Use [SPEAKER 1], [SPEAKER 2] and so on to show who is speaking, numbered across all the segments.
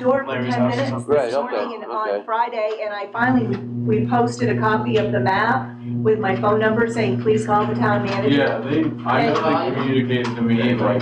[SPEAKER 1] door for
[SPEAKER 2] Larry's
[SPEAKER 1] ten
[SPEAKER 2] house or
[SPEAKER 1] minutes
[SPEAKER 2] something.
[SPEAKER 1] this
[SPEAKER 3] Right, okay,
[SPEAKER 1] morning and
[SPEAKER 3] okay.
[SPEAKER 1] on Friday, and I finally reposted a copy of the map with my phone number saying, please call the town manager.
[SPEAKER 4] Yeah, they, I know they communicated to me, like,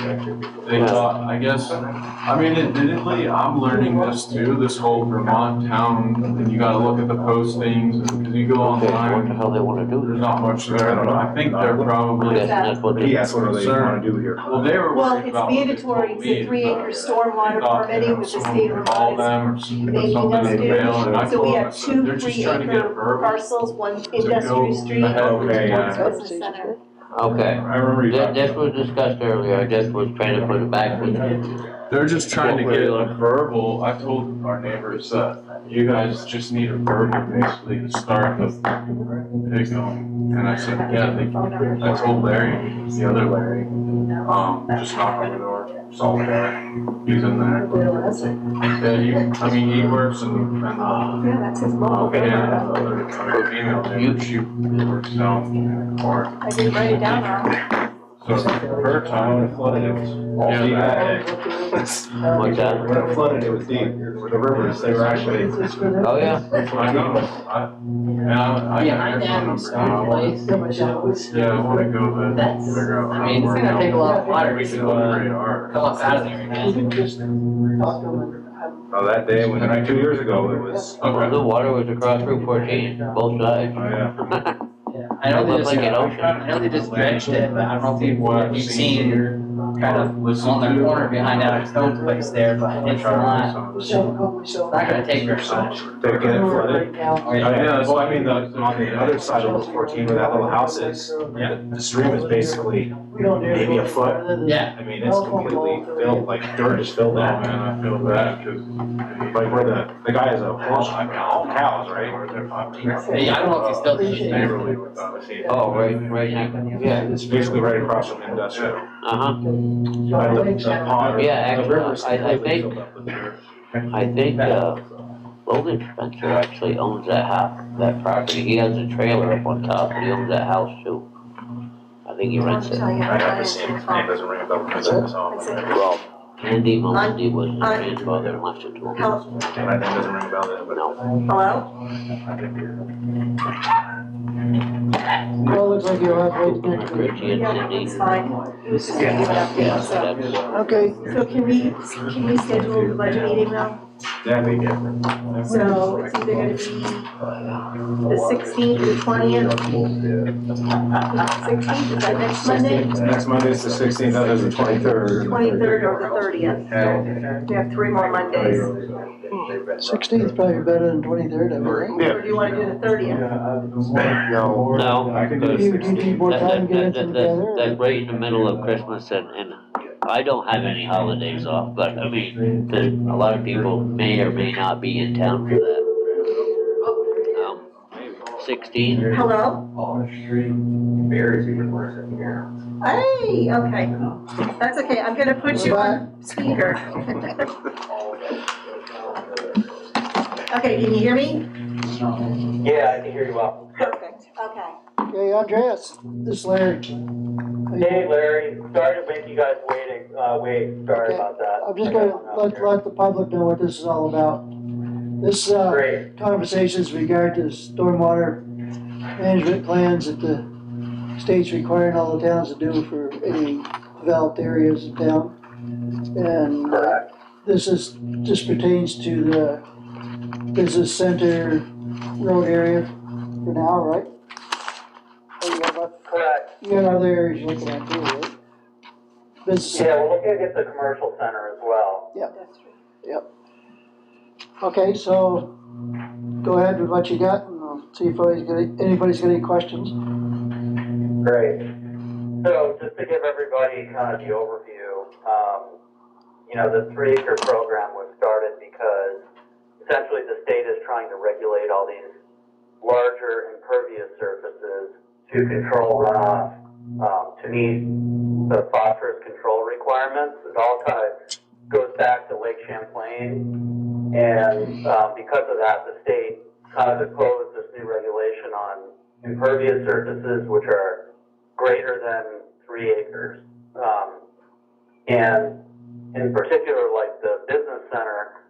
[SPEAKER 4] they thought, I guess, I mean, admittedly, I'm learning this too, this whole Vermont town, and you gotta look at the postings, and 'cause you go
[SPEAKER 3] Okay, what the
[SPEAKER 4] online,
[SPEAKER 3] hell they wanna
[SPEAKER 4] there's
[SPEAKER 3] do?
[SPEAKER 4] not much there, I don't know, I think they're
[SPEAKER 3] That's,
[SPEAKER 4] probably,
[SPEAKER 3] that's what
[SPEAKER 5] He
[SPEAKER 3] they,
[SPEAKER 5] asked what do they wanna do here.
[SPEAKER 4] well, they were
[SPEAKER 1] Well,
[SPEAKER 4] worried
[SPEAKER 1] it's
[SPEAKER 4] about. what they
[SPEAKER 1] mandatory,
[SPEAKER 4] told
[SPEAKER 1] it's
[SPEAKER 4] me,
[SPEAKER 1] a three acre
[SPEAKER 4] but
[SPEAKER 1] stormwater
[SPEAKER 4] they thought, you
[SPEAKER 1] permitting
[SPEAKER 4] know,
[SPEAKER 1] with the
[SPEAKER 4] someone
[SPEAKER 1] state
[SPEAKER 4] could
[SPEAKER 1] of
[SPEAKER 4] Call
[SPEAKER 1] Vermont.
[SPEAKER 4] them or something in
[SPEAKER 1] Maybe that's
[SPEAKER 4] the
[SPEAKER 1] good.
[SPEAKER 4] mail, and I
[SPEAKER 1] So we
[SPEAKER 4] told them, I
[SPEAKER 1] have
[SPEAKER 4] said, they're
[SPEAKER 1] two
[SPEAKER 4] just
[SPEAKER 1] three
[SPEAKER 4] trying to get a
[SPEAKER 1] acre
[SPEAKER 4] verbiage
[SPEAKER 1] parcels, one
[SPEAKER 4] to go
[SPEAKER 1] industrial street,
[SPEAKER 4] ahead with
[SPEAKER 5] Okay,
[SPEAKER 4] what's
[SPEAKER 5] yeah.
[SPEAKER 1] business center.
[SPEAKER 5] I
[SPEAKER 3] okay.
[SPEAKER 5] remember you
[SPEAKER 3] This,
[SPEAKER 5] talking.
[SPEAKER 3] this was discussed earlier, this was trying to put it back with
[SPEAKER 4] They're just trying to get
[SPEAKER 3] Well,
[SPEAKER 4] a verbal, I told our neighbors that you guys just need a verbal basically to start the thing going. And I said, yeah, they, I told Larry, the other Larry, um, just knock on the door, solve that, he's in there. Yeah, he, I mean, he works and, and, uh,
[SPEAKER 1] Yeah, that's his mom.
[SPEAKER 4] yeah, the other, the female neighbor, she works down in the park.
[SPEAKER 1] I didn't write it down wrong.
[SPEAKER 4] So her town flooded, all
[SPEAKER 5] Yeah,
[SPEAKER 4] she had.
[SPEAKER 3] what's that?
[SPEAKER 5] When it flooded, it was deep, with the rivers, they were actually,
[SPEAKER 3] Oh, yeah,
[SPEAKER 4] I know, I, and I, I got
[SPEAKER 6] Behind
[SPEAKER 4] their phone
[SPEAKER 6] them,
[SPEAKER 4] number now.
[SPEAKER 6] someplace.
[SPEAKER 4] Yeah, I wanna go there, and
[SPEAKER 6] That's-
[SPEAKER 4] figure out.
[SPEAKER 6] I mean, it's gonna take a lot of water
[SPEAKER 4] We can
[SPEAKER 6] to,
[SPEAKER 4] look
[SPEAKER 6] uh,
[SPEAKER 4] pretty hard.
[SPEAKER 6] come up out of there again.
[SPEAKER 5] oh, that day, when, two years ago, it was,
[SPEAKER 3] Well,
[SPEAKER 4] Okay.
[SPEAKER 3] the water was across Route fourteen, both
[SPEAKER 5] oh,
[SPEAKER 3] sides.
[SPEAKER 5] yeah.
[SPEAKER 6] I know they
[SPEAKER 3] Looks
[SPEAKER 6] just,
[SPEAKER 3] like an
[SPEAKER 6] I know they just dredged it, but I don't know if you've,
[SPEAKER 4] What I've
[SPEAKER 6] if you've seen
[SPEAKER 4] here,
[SPEAKER 6] kind of
[SPEAKER 4] listen
[SPEAKER 6] on the
[SPEAKER 4] to-
[SPEAKER 6] corner behind that stone place there, but
[SPEAKER 4] Try
[SPEAKER 6] it's
[SPEAKER 4] to do
[SPEAKER 6] not,
[SPEAKER 4] some of this.
[SPEAKER 6] it's not gonna take very much.
[SPEAKER 5] They were getting flooded.
[SPEAKER 6] Oh, yeah.
[SPEAKER 5] I know, so I mean, the, on the other side of Route fourteen where that little house is,
[SPEAKER 6] Yeah.
[SPEAKER 5] the stream is basically,
[SPEAKER 7] Maybe
[SPEAKER 5] a foot.
[SPEAKER 6] Yeah,
[SPEAKER 5] I mean, it's completely filled, like dirt is
[SPEAKER 4] Oh
[SPEAKER 5] filled up.
[SPEAKER 4] man, I feel bad, cause.
[SPEAKER 5] Like where the, the guy is a, horse- I mean, all cows, right?
[SPEAKER 6] Hey, I don't know if he's still doing it.
[SPEAKER 4] Neighborly without us.
[SPEAKER 3] Oh, right, right now, yeah,
[SPEAKER 5] It's basically right across from industrial.
[SPEAKER 3] uh-huh,
[SPEAKER 5] But the- the pond-
[SPEAKER 3] Yeah,
[SPEAKER 5] the
[SPEAKER 3] actually,
[SPEAKER 5] river's
[SPEAKER 3] I- I
[SPEAKER 5] completely
[SPEAKER 3] think-
[SPEAKER 5] filled up with dirt.
[SPEAKER 3] I think, uh, Logan Spencer actually owns that house, that property, he has a trailer up on top, but he owns that house too. I think he rents it,
[SPEAKER 5] I have the same, his name doesn't ring a bell because of this all, and
[SPEAKER 3] well, Andy Maloney was his grandfather and left it to him,
[SPEAKER 1] Hello?
[SPEAKER 5] my name doesn't ring a bell then, but.
[SPEAKER 3] no,
[SPEAKER 1] Hello?
[SPEAKER 7] Well, looks like you're halfway connected.
[SPEAKER 3] Richie and
[SPEAKER 1] Yeah,
[SPEAKER 3] Cindy.
[SPEAKER 1] it's fine. He was just giving an
[SPEAKER 3] Yeah,
[SPEAKER 1] update,
[SPEAKER 3] so
[SPEAKER 1] so.
[SPEAKER 3] that's-
[SPEAKER 7] Okay,
[SPEAKER 1] So can we, can we schedule the budget meeting now?
[SPEAKER 5] That we get.
[SPEAKER 1] So it's either gonna be the sixteenth or twentieth? Sixteenth, is that next Monday?
[SPEAKER 5] Next Monday's the sixteenth, that is the twenty-third.
[SPEAKER 1] Twenty-third or the thirtieth? We have three more Mondays.
[SPEAKER 7] sixteenth probably better than twenty-third, I would think.
[SPEAKER 1] Or do you wanna do the thirtieth?
[SPEAKER 5] No.
[SPEAKER 3] No,
[SPEAKER 5] I can do
[SPEAKER 3] because
[SPEAKER 5] the
[SPEAKER 7] You, you
[SPEAKER 5] sixteenth.
[SPEAKER 7] need more
[SPEAKER 3] That-
[SPEAKER 7] time
[SPEAKER 3] that-
[SPEAKER 7] getting
[SPEAKER 3] that-
[SPEAKER 7] it
[SPEAKER 3] that-
[SPEAKER 7] together.
[SPEAKER 3] that- That's right in the middle of Christmas and, and I don't have any holidays off, but I mean, there's, a lot of people may or may not be in town for that. Um, Sixteen,
[SPEAKER 1] Hello? Hey, okay. That's okay, I'm gonna put you on speaker. Okay, can you hear me?
[SPEAKER 8] Yeah, I can hear you well.
[SPEAKER 1] Perfect, okay.
[SPEAKER 7] Okay, Andreas, this is Larry.
[SPEAKER 8] Hey Larry, sorry to make you guys waiting, uh, wait, sorry about that.
[SPEAKER 7] I'm just gonna let, let the public know what this is all about. This, uh,
[SPEAKER 8] Great,
[SPEAKER 7] conversations regard to stormwater management plans that the state's requiring all the towns to do for any developed areas of town. And uh,
[SPEAKER 8] correct,
[SPEAKER 7] This is, just pertains to the business center road area for now, right? Or you got about-
[SPEAKER 8] correct.
[SPEAKER 7] You got other areas you're looking at too, right? Business,
[SPEAKER 8] Yeah, we're looking at the commercial center as well.
[SPEAKER 7] okay, so go ahead with what you got and I'll see if anybody's got, anybody's got any questions.
[SPEAKER 8] Great. So just to give everybody kind of the overview, um, you know, the three acre program was started because essentially the state is trying to regulate all these larger impervious surfaces to control runoff, um, to meet the phosphorus control requirements. It all kind of goes back to Lake Champlain. And, um, because of that, the state kind of imposed this new regulation on impervious surfaces, which are greater than three acres. Um, and in particular, like the business center,